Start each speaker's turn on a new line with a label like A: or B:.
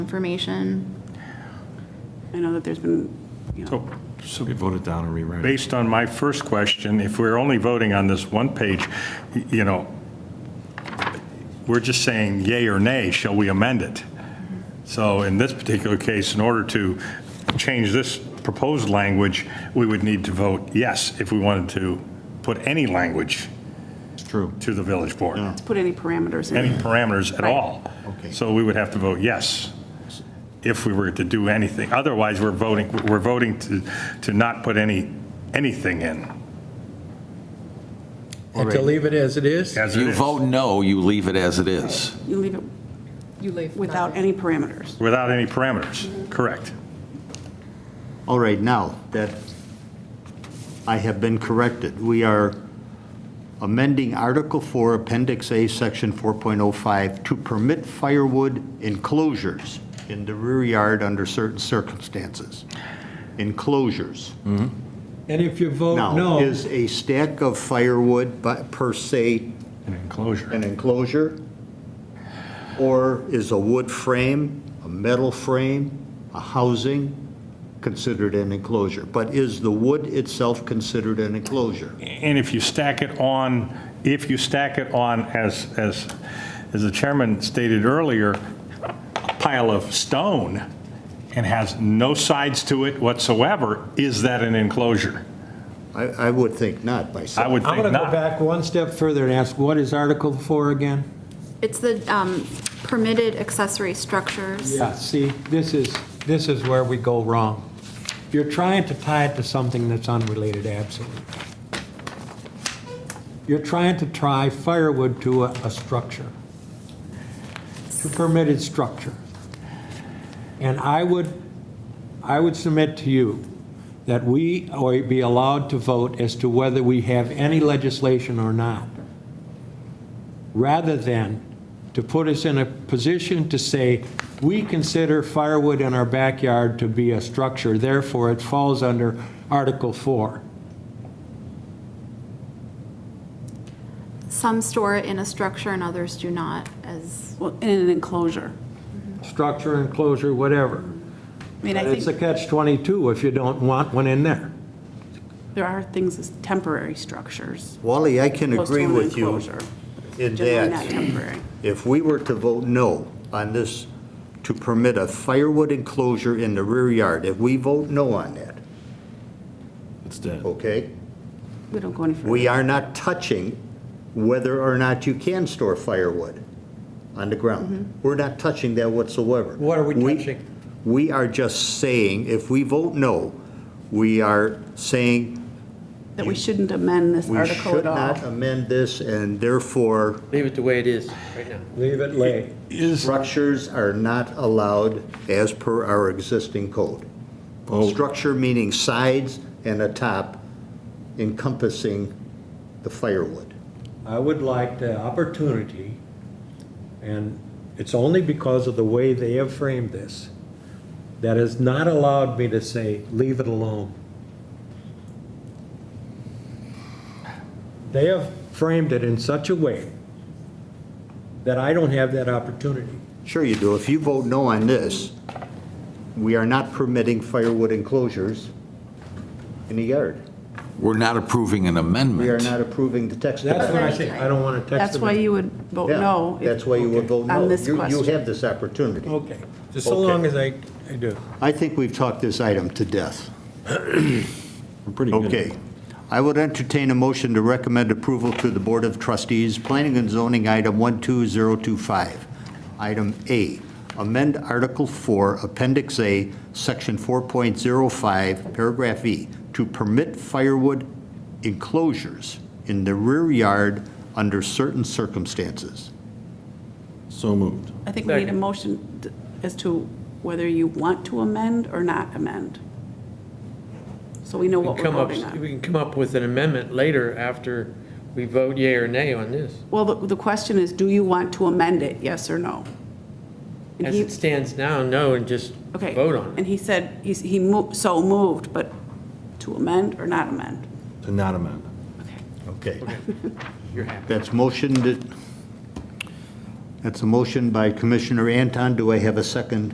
A: information.
B: I know that there's been, you know,
C: So, so
D: We voted down and rewrote it.
C: based on my first question, if we're only voting on this one page, y- you know, we're just saying yay or nay, shall we amend it? So in this particular case, in order to change this proposed language, we would need to vote yes if we wanted to put any language
D: It's true.
C: to the village board,
B: to put any parameters
C: any
B: in.
C: parameters at
B: Right.
C: all.
E: Okay.
C: So we would have to vote yes if we were to do anything. Otherwise, we're voting, we're voting to, to not put any, anything in.
E: And to leave it as it is?
C: As it
F: You
C: is,
F: vote no, you leave it as it is.
B: You leave it
G: You leave.
B: without any parameters.
C: without any parameters, correct.
E: All right, now, that, I have been corrected. We are amending Article 4, Appendix A, Section 4.05, to permit firewood enclosures in the rear yard under certain circumstances. Enclosures.
H: And if you vote
E: Now,
H: Oh, no,
E: is a stack of firewood bu- per se
C: An enclosure.
E: an enclosure? Or is a wood frame, a metal frame, a housing considered an enclosure? But is the wood itself considered an enclosure?
C: And if you stack it on, if you stack it on, as, as, as the chairman stated earlier, a pile of stone and has no sides to it whatsoever, is that an enclosure?
E: I, I would think not myself.
C: I would
H: I'm
C: think
H: going to go
C: not.
H: back one step further and ask, what is Article 4 again?
A: It's the um, permitted accessory structures.
H: Yeah, see, this is, this is where we go wrong. You're trying to tie it to something that's unrelated, absolutely. You're trying to tie firewood to a, a structure, to permitted structure. And I would, I would submit to you that we or be allowed to vote as to whether we have any legislation or not rather than to put us in a position to say, we consider firewood in our backyard to be a structure, therefore it falls under Article 4.
A: Some store it in a structure and others do not, as
B: Well, in an enclosure.
H: Structure, enclosure, whatever.
B: I mean, I
H: It's a
B: think
H: catch-22 if you don't want one in there.
B: there are things as temporary structures.
E: Wally, I can
B: opposed to
E: agree
B: an
E: with you
B: enclosure,
E: in
B: Generally not
E: that
B: temporary.
E: if we were to vote no on this, to permit a firewood enclosure in the rear yard, if we vote no on that,
D: It's dead.
E: okay?
B: We don't go any further.
E: We are not touching whether or not you can store firewood on the ground. We're not touching that whatsoever.
H: Mm-hmm. What are we touching?
E: We are just saying, if we vote no, we are saying
B: That we shouldn't amend this
E: we
B: article
E: should
B: at
E: not
B: all.
E: amend this, and therefore
I: Leave it the way it is right now.
H: Leave it lay.
E: structures are not allowed as per our existing code. Structure meaning sides and a top encompassing the firewood.
H: I would like the opportunity, and it's only because of the way they have framed this, that has not allowed me to say, leave it alone. They have framed it in such a way that I don't have that opportunity.
E: Sure you do. If you vote no on this, we are not permitting firewood enclosures in the yard.
F: We're not approving an amendment.
E: We are not approving the text.
H: That's what I
E: amendment.
H: say, I don't want to text
B: That's
H: them.
B: why you would vote
E: Yeah,
B: no. if-
E: That's why you would vote no.
B: On this
E: You- You
B: question.
E: have this opportunity.
H: Okay, just so
E: Okay.
H: long as I, I do.
E: I think we've talked this item to death.
D: We're pretty good.
E: Okay. I would entertain a motion to recommend approval to the Board of Trustees, Planning and Zoning Item 12025. Item A, amend Article 4, Appendix A, Section 4.05, Paragraph E, to permit firewood enclosures in the rear yard under certain circumstances.
D: So moved.
B: I think we need a motion t- as to whether you want to amend or not amend. So we know
I: We
B: what
I: can
B: we're
I: come up,
B: voting on.
I: we can come up with an amendment later after we vote yea or nay on this.
B: Well, the, the question is, do you want to amend it, yes or no? And
I: As
B: he-
I: it stands now, no, and just
B: Okay.
I: vote on it.
B: And he said, he's, he moved, so moved, but to amend or not amend?
D: To not amend.
E: Okay.
I: You're happy.
E: That's motioned, that's a motion by Commissioner Anton. Do I have a second?